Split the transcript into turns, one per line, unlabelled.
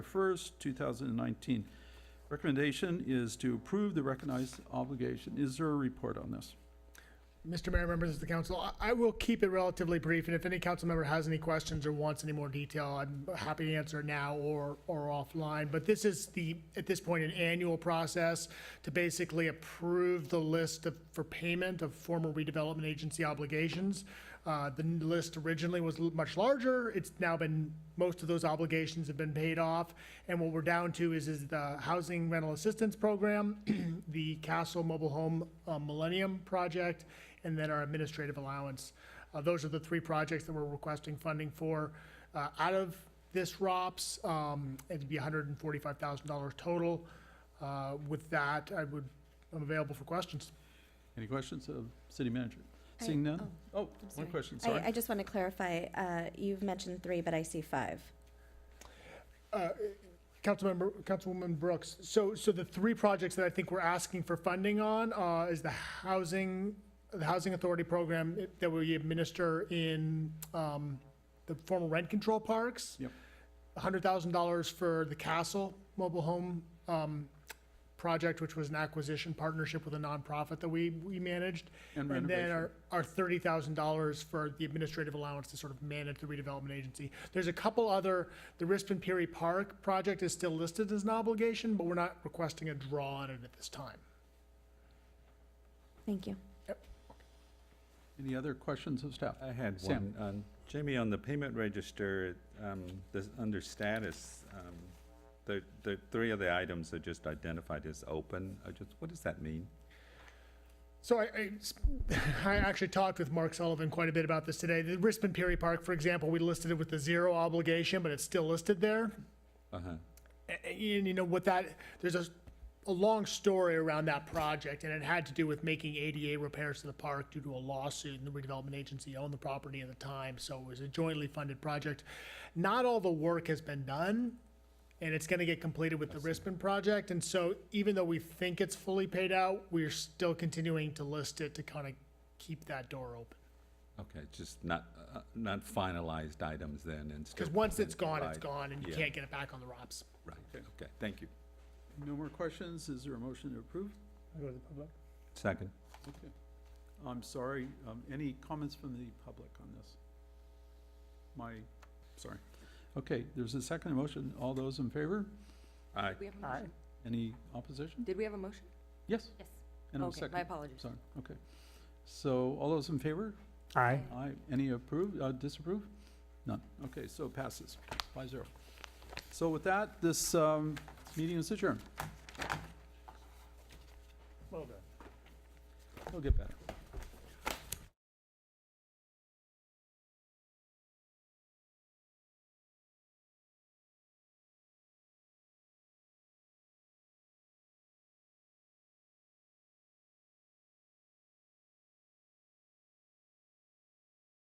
1st, 2019. Recommendation is to approve the recognized obligation. Is there a report on this?
Mr. Mayor, members of the council, I- I will keep it relatively brief, and if any council member has any questions or wants any more detail, I'm happy to answer now or, or offline. But this is the, at this point, an annual process to basically approve the list of, for payment of former redevelopment agency obligations. Uh, The n- list originally was l- much larger. It's now been, most of those obligations have been paid off. And what we're down to is, is the Housing Rental Assistance Program, the Castle Mobile Home uh, Millennium Project, and then our administrative allowance. Uh, Those are the three projects that we're requesting funding for. Uh, Out of this ROPS, um, it'd be $145,000 total. Uh, With that, I would, I'm available for questions.
Any questions of city manager?
I-
Seeing none? Oh, one
sorry.
question,
I, I
sorry.
just want to clarify, uh, you've mentioned three, but I see five.
Uh, Councilmember, Councilwoman Brooks, so, so the three projects that I think we're asking for funding on, uh, is the housing, the housing authority program that we administer in, um, the former rent control parks.
Yep.
hundred thousand dollars for the Castle Mobile Home, um, project, which was an acquisition partnership with a nonprofit that we, we managed.
And
And then
renovation.
our, our thirty thousand dollars for the administrative allowance to sort of manage the redevelopment agency. There's a couple other, the Rispin Peary Park project is still listed as an obligation, but we're not requesting a draw on it at this time.
Thank you.
Any other questions of staff? Uh,
I had
Sam.
one. Um, Jamie, on the payment register, um, this, under status, um, the, the three of the items are just identified as open. I just, what does that mean?
So I, I, I actually talked with Mark Sullivan quite a bit about this today. The Rispin Peary Park, for example, we listed it with the zero obligation, but it's still listed there.
Uh-huh.
A- a- and you know what that there's a, a long story around that project and it had to do with making ada repairs to the park due to a lawsuit and the redevelopment agency owned the property at the time so it was a jointly funded project not all the work has been done and it's going to get completed with the Rispin project and so even though we think it's fully paid out we're still continuing to list it to kind of keep that door open
Okay, just not, uh, not finalized items then and still.
because once it's gone it's
identified.
gone and you
Yeah.
can't get it back on the ROPS.
Right, okay, thank you.
No more questions? Is there a motion to approve?
Second.
Okay. I'm sorry, um, any comments from the public on this? My, sorry. Okay, there's a second motion. All those in favor?
Aye.
We have a motion.
Any opposition?
Did we have a motion?
Yes?
Yes.
And it was
Okay, my
second.
apologies.
Sorry, okay. So all those in favor?
aye
Aye. Any approve, uh, disapprove? None. Okay, so it passes, five zero. So with that, this, um, meeting is adjourned.
well done
It'll get better.